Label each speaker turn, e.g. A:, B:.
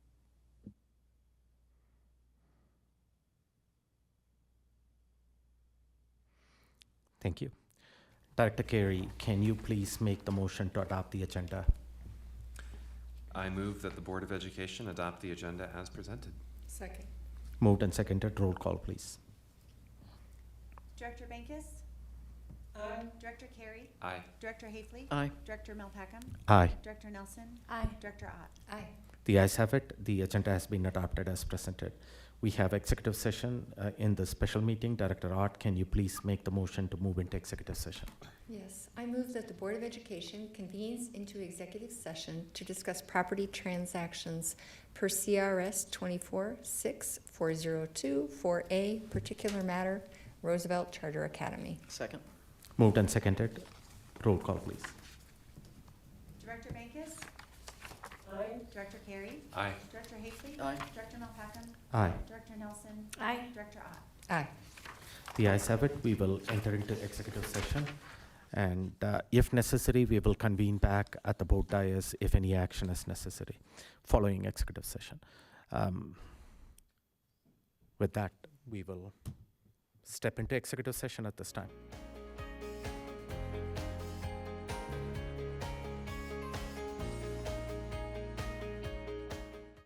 A: Thank you. Director Carey, can you please make the motion to adopt the agenda?
B: I move that the Board of Education adopt the agenda as presented.
C: Second.
A: Moved and seconded, roll call, please.
D: Director Bankus?
C: Aye.
D: Director Carey?
B: Aye.
D: Director Hayfley?
E: Aye.
D: Director Malpacum?
A: Aye.
D: Director Nelson?
C: Aye.
D: Director Ott?
C: Aye.
A: The ayes have it. The agenda has been adopted as presented. We have executive session uh, in the special meeting. Director Art, can you please make the motion to move into executive session?
C: Yes, I move that the Board of Education convenes into executive session to discuss property transactions per CRS twenty-four six four zero two four A, particular matter, Roosevelt Charter Academy.
E: Second.
A: Moved and seconded, roll call, please.
D: Director Bankus? Director Carey?
B: Aye.
D: Director Hayfley?
E: Aye.
D: Director Malpacum?
A: Aye.
D: Director Nelson?
C: Aye.
D: Director Ott?
C: Aye.
A: The ayes have it. We will enter into executive session. And uh, if necessary, we will convene back at the board dais if any action is necessary following executive session. Um, With that, we will step into executive session at this time.